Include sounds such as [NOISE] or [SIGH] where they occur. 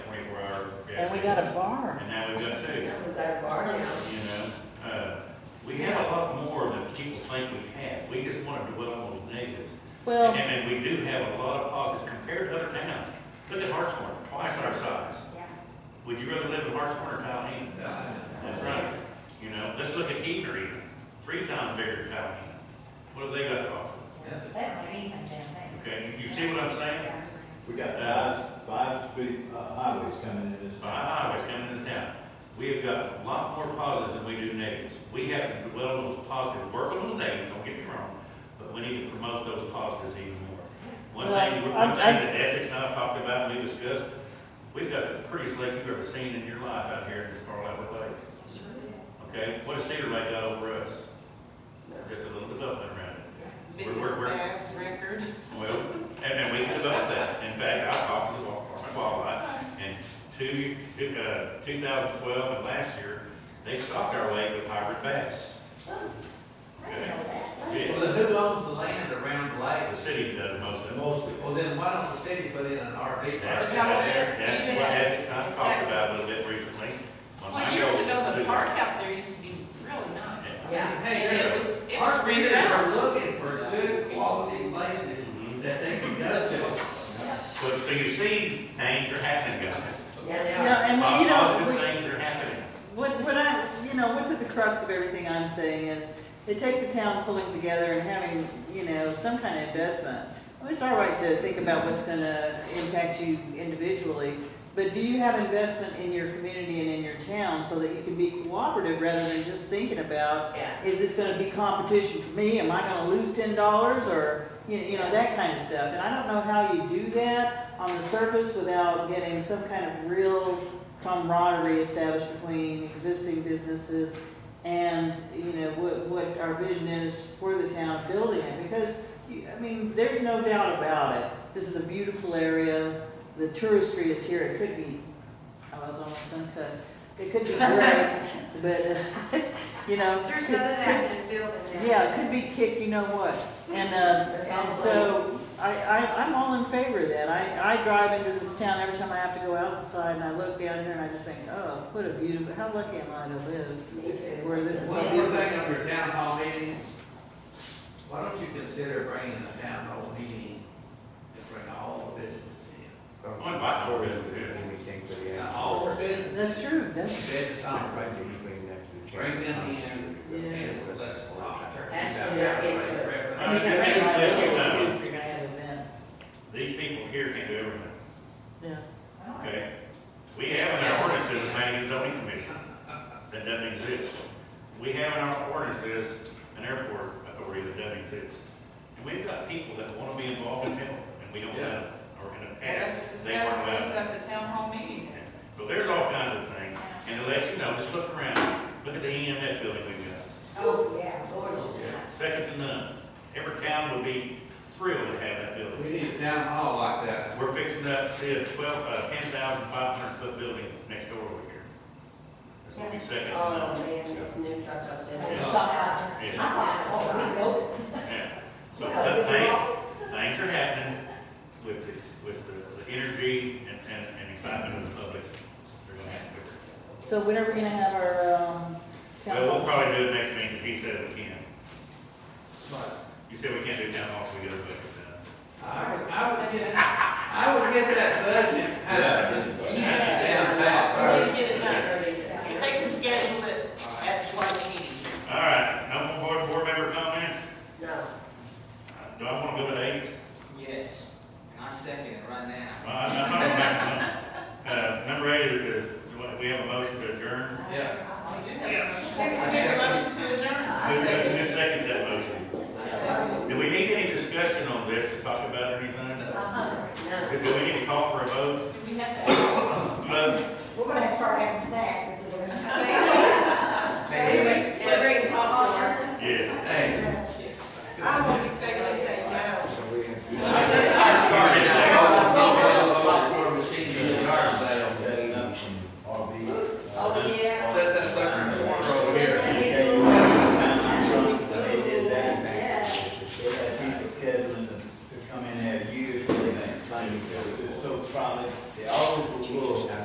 we got a bar. And now we've got two, you Yeah, we've got a bar now. know, uh, we have a lot more than people think we have, we just want to dwell on the negatives. And, Well, and we do have a lot of positives compared to other towns, look at Hartsmore, twice our size. Yeah. Would you rather live in Hartsmore or Tallahassee? That's right, you know, let's look at Heber even, three times bigger than Tallahassee, what have they got to offer? Okay, you you see what I'm saying? We got five, five street uh, highways coming in this Five town. highways coming in this town. We have got a lot more positives than we do negatives. We have to dwell on those positives, work on the negatives, don't get me wrong, but we need to promote those positives even more. One Well, thing, one I'm- thing I'm- that Essex and I talked about and we discussed, we've got the prettiest lake you've ever seen in your life out here in this Carlisle Lake. Okay, what has Cedar Lake got over us? Just a little development around it. We're- we're- Biggest we're- bass record. Well, and, and we can develop that. In fact, I talked to the Department of Wildlife, and two, two- uh, two thousand twelve and last year, they stocked our lake with hybrid bass. Yeah, Well, who owns the land around the the lake? city does most of it. Mostly. Well, then why don't the city put in an RV That's, park? Yeah. that's, that's what Yes, Essex and I talked about a little bit recently. When my Well, years girls ago, the do park this. out there used to be really nice. Yeah. Hey, And it yeah, was, it was our readers are reground. looking for good quality places Mhm. that they can go to. So, so you see, things are happening, guys. Yeah, you they know, are. and you know, Positive we- things are happening. What, what I, you know, what's at the crux of everything I'm saying is, it takes a town pulling together and having, you know, some kind of investment. Well, It's all right to think about what's gonna impact you individually, but do you have investment in your community and in your town so that you can be cooperative rather than just thinking about, Yeah. is this gonna be competition for me? Am I gonna lose ten dollars or, you you know, that kind of stuff? And I don't know how you do that on the surface without getting some kind of real camaraderie established between existing businesses and, you know, what, what our vision is for the town building it, because, you- I mean, there's no doubt about it. This is a beautiful area, the touristry is here, it could be, oh, I was almost done cuss, it could be great, but, [LAUGHS] uh, you know. There's could- none of that in this building. now. Yeah, it could be kick, you know what, and, uh, and so, I, I, I'm all in favor of that, I, I drive into this town every time I have to go outside, and I look down here and I just think, oh, what a beautiful, how lucky am I to live Me too. where this is so One more beautiful. thing on your town hall meeting, why don't you consider bringing the town hall meeting and bring all the businesses I'm gonna invite more people to this. in? All the businesses, That's true, that's, business owners, Bring them in. and let's talk. turkey about that, raise revenue. I mean, Yeah. that makes sense, Yeah. too, if you're gonna have events, These people here can do everything. yeah. Okay, we have in our ordinances, planning and zoning commission, that doesn't exist. We have in our ordinances, an airport authority that doesn't exist. And we've got people that wanna be involved in health, and we don't let them, or in the Well, Let's past, they weren't discuss this allowed. at the town hall meeting. So there's all kinds of things, and to let you know, just look around, look at the EMS building we've got, Oh, yeah, gorgeous. second to none. Every town would be thrilled to have that building. We need a town hall like that. We're fixing up, see, a twelve, uh, ten thousand five hundred foot building next door over here. That's what we said, that's Oh, enough. man, this new truck up there. Yeah. Yeah. oh, Yeah. So, but things, things are happening with this, with the, the energy and, and, and excitement of the public. They're gonna have to- So when are we gonna have our, um, town Well, we'll hall? probably do it next meeting, 'cause he said we can. But You said we can't do town halls, we gotta do I would, I would get, I would get that budget. Yeah, get the budget. Yeah, that We need to get it done. If they Yeah. can schedule it first. at the joint meeting. that. uh, All right, no more board, board member comments? No. Uh, Do I wanna go to eight? Yes, and I second it right now. Well, I'm not talking about, uh, number eight, is- we have a motion to adjourn. Yeah. We do Yes. have a motion to adjourn. Who who seconds that motion? Do we need any discussion on this to talk about anything? Uh-huh. No. Do we need to call for a vote? Do we have to? Vote, uh,